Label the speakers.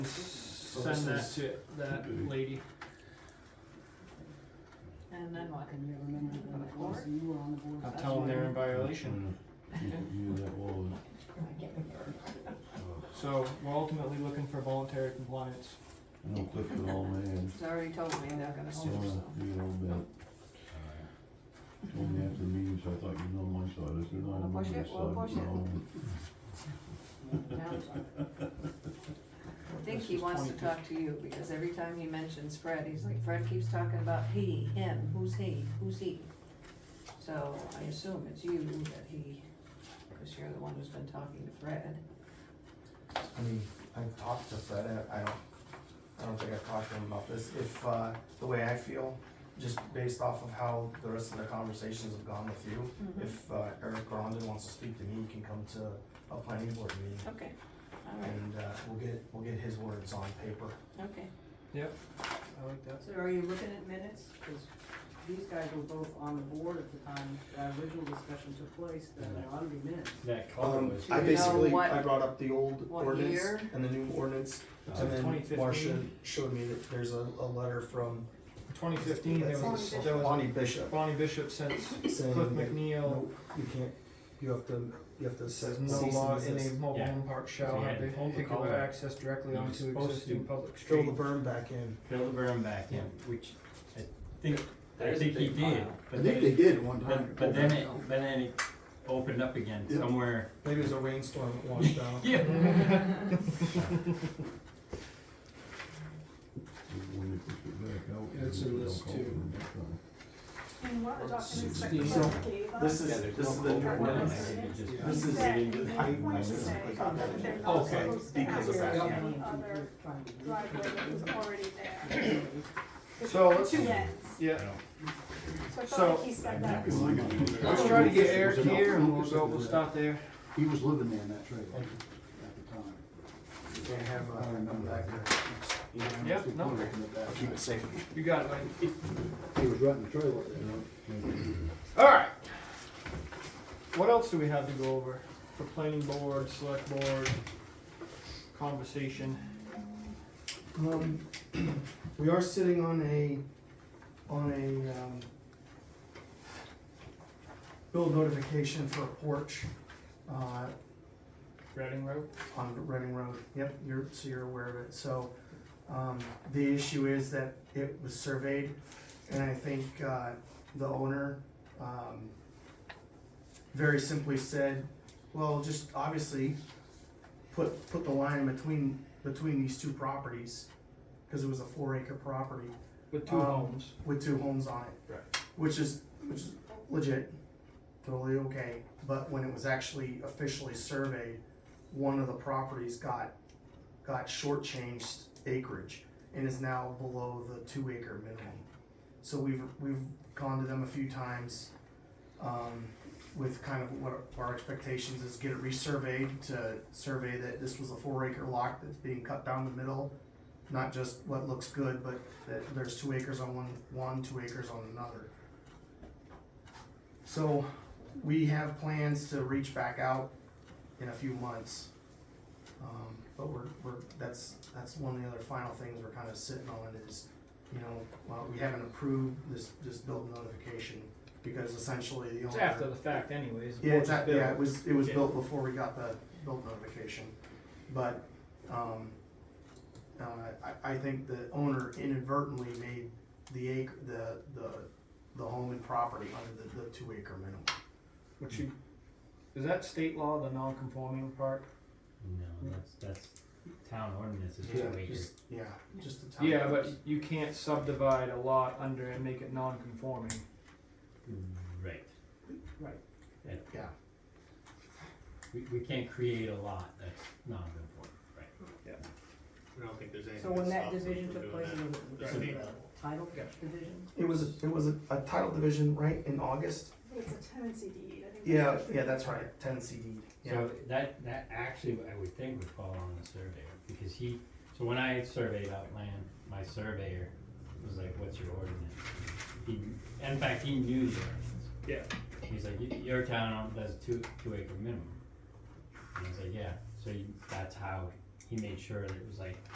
Speaker 1: send that
Speaker 2: this
Speaker 1: to that lady.
Speaker 3: And then what?
Speaker 4: Can you remember when it was you were on the board?
Speaker 1: I'll tell them they're in violation.
Speaker 2: You that uh, was,
Speaker 1: So we're ultimately looking for voluntary compliance.
Speaker 2: you know, Cliff and all man,
Speaker 3: It's already told me they're gonna
Speaker 2: uh,
Speaker 3: sue, so.
Speaker 2: you know, but told me after the meeting, so I thought you know my side, I said, no, I
Speaker 3: Wanna
Speaker 2: remember
Speaker 3: push
Speaker 2: this
Speaker 3: it? We'll
Speaker 2: side,
Speaker 3: push it.
Speaker 2: no.
Speaker 3: I think he wants to talk to you, because every time he mentions Fred, he's like, Fred keeps talking about he, him, who's he, who's he? So I assume it's you that he, because you're the one who's been talking to Fred.
Speaker 5: I mean, I've talked to Fred, I, I don't, I don't think I've talked to him about this, if, uh, the way I feel, just based off of how the rest of the conversations have gone with you,
Speaker 3: Mm-hmm.
Speaker 5: if, uh, Eric Grondin wants to speak to me, he can come to a planning board meeting,
Speaker 3: Okay, all right,
Speaker 5: and, uh, we'll get, we'll get his words on paper.
Speaker 3: okay.
Speaker 1: I like that.
Speaker 3: So are you looking at minutes?
Speaker 4: Because these guys were both on the board at the time that original discussion took place, that I ought to be minutes.
Speaker 6: That color
Speaker 5: Um,
Speaker 6: was.
Speaker 3: I Do you know basically- what- I
Speaker 5: brought up the old
Speaker 3: what ordinance year?
Speaker 5: and the new ordinance,
Speaker 1: So 2015?
Speaker 5: showed me that there's a, a letter from
Speaker 1: Twenty fifteen, there was, there was
Speaker 5: Bonnie Bishop
Speaker 1: Bonnie Bishop since
Speaker 5: saying
Speaker 1: Cliff
Speaker 5: that-
Speaker 1: McNeil
Speaker 5: Nope, you can't, you have to, you have to
Speaker 1: says
Speaker 5: cease and
Speaker 1: no law in a
Speaker 5: desist.
Speaker 1: mobile
Speaker 6: Yeah.
Speaker 1: home park
Speaker 6: So
Speaker 1: shall
Speaker 6: he
Speaker 1: have
Speaker 6: had pulled the
Speaker 1: vehicular
Speaker 6: collar.
Speaker 1: access directly
Speaker 6: He was
Speaker 1: onto
Speaker 6: supposed
Speaker 1: existing
Speaker 6: to
Speaker 1: public
Speaker 5: Fill
Speaker 1: street.
Speaker 5: the berm back in.
Speaker 6: Fill the berm back in, which I think, I
Speaker 7: There's a
Speaker 6: think he
Speaker 7: big
Speaker 6: did.
Speaker 7: pile.
Speaker 6: but
Speaker 8: I think
Speaker 6: then-
Speaker 8: they did one time.
Speaker 6: But, but then it, but then it opened up again
Speaker 8: Yeah.
Speaker 6: somewhere.
Speaker 5: Maybe it was a rainstorm that washed down.
Speaker 6: Yeah.
Speaker 2: When they push it back out.
Speaker 1: It's in
Speaker 2: they don't
Speaker 1: this
Speaker 2: call
Speaker 1: too.
Speaker 2: for it next time.
Speaker 9: And what the documents that
Speaker 1: Sixteen.
Speaker 9: Clark gave us.
Speaker 5: This
Speaker 7: Yeah,
Speaker 5: is,
Speaker 7: there's
Speaker 5: this
Speaker 7: no
Speaker 5: is the new
Speaker 7: culvert down
Speaker 5: ordinance.
Speaker 7: there, you just-
Speaker 1: Yeah.
Speaker 5: This is
Speaker 9: Exactly.
Speaker 5: the
Speaker 9: They
Speaker 5: height
Speaker 9: want to
Speaker 5: limits.
Speaker 9: say that they're not
Speaker 5: Okay,
Speaker 9: supposed to
Speaker 5: because of
Speaker 9: access
Speaker 5: that,
Speaker 9: any
Speaker 4: Yeah.
Speaker 9: other driveway that was already there.
Speaker 1: So
Speaker 9: The
Speaker 1: let's-
Speaker 9: Two ends,
Speaker 1: Yeah,
Speaker 9: so I
Speaker 1: So-
Speaker 9: felt like he said that.
Speaker 1: let's try to get Eric here and we'll go, we'll stop there.
Speaker 8: He was living there in that trailer at the time.
Speaker 5: They have, uh,
Speaker 8: I remember
Speaker 5: back
Speaker 8: that.
Speaker 5: there.
Speaker 1: Yep, no.
Speaker 5: Keep it safe.
Speaker 1: You got it, buddy.
Speaker 8: He was renting the trailer up there.
Speaker 1: Alright. What else do we have to go over for planning board, select board, conversation?
Speaker 5: Um, we are sitting on a, on a, um, build notification for a porch, uh,
Speaker 1: Reading Road?
Speaker 5: on Reading Road. Yep, you're, so you're aware of it. So, um, the issue is that it was surveyed, and I think, uh, the owner, um, very simply said, well, just obviously, put, put the line in between, between these two properties, cause it was a four acre property
Speaker 1: With two
Speaker 5: Um,
Speaker 1: homes.
Speaker 5: with two homes on it.
Speaker 1: Right.
Speaker 5: Which is, which is legit, totally okay, but when it was actually officially surveyed, one of the properties got, got shortchanged acreage and is now below the two acre minimum. So we've, we've gone to them a few times, um, with kind of what our expectations is get it resurveyed to survey that this was a four acre lot that's being cut down the middle. Not just what looks good, but that there's two acres on one, one, two acres on another. So we have plans to reach back out in a few months. Um, but we're, we're, that's, that's one of the other final things we're kind of sitting on is, you know, well, we haven't approved this, this build notification because essentially the owner.
Speaker 1: It's after the fact anyways.
Speaker 5: Yeah, it's, at- yeah,
Speaker 1: built.
Speaker 5: it was, it was
Speaker 1: Yeah.
Speaker 5: built before we got the build notification, but, um, uh, I, I think the owner inadvertently made the acre, the, the, the home and property under the, the two acre minimum.
Speaker 1: Which you, is that state law, the non-conforming part?
Speaker 6: No, that's, that's town ordinance is
Speaker 5: Yeah,
Speaker 6: what we
Speaker 5: just- Yeah, just the town.
Speaker 1: Yeah, but you can't subdivide a lot under and make it non-conforming.
Speaker 6: Right.
Speaker 1: Right.
Speaker 6: Yeah.
Speaker 5: Yeah.
Speaker 6: We, we can't create a lot that's non-conforming, right?
Speaker 7: I don't think there's anything.
Speaker 4: So when that
Speaker 7: stops us
Speaker 4: division
Speaker 7: from
Speaker 4: took
Speaker 7: doing
Speaker 4: place,
Speaker 7: that.
Speaker 4: it
Speaker 7: Right.
Speaker 5: It was,
Speaker 4: was it was a title division?
Speaker 5: a- it was a a title division, right, in August?
Speaker 9: It's a tenancy deed, E. I think.
Speaker 5: Yeah, yeah, that's right, ten CD, yeah.
Speaker 6: So that, that actually, I would think would fall on the surveyor, because he, so when I surveyed out land, my surveyor was like, what's your ordinance? He, in fact, he knew the ordinance.
Speaker 1: Yeah.
Speaker 6: He's like, "Y- your town does two, two acre minimum. And I was like, yeah, so you- that's how he made sure that it was like,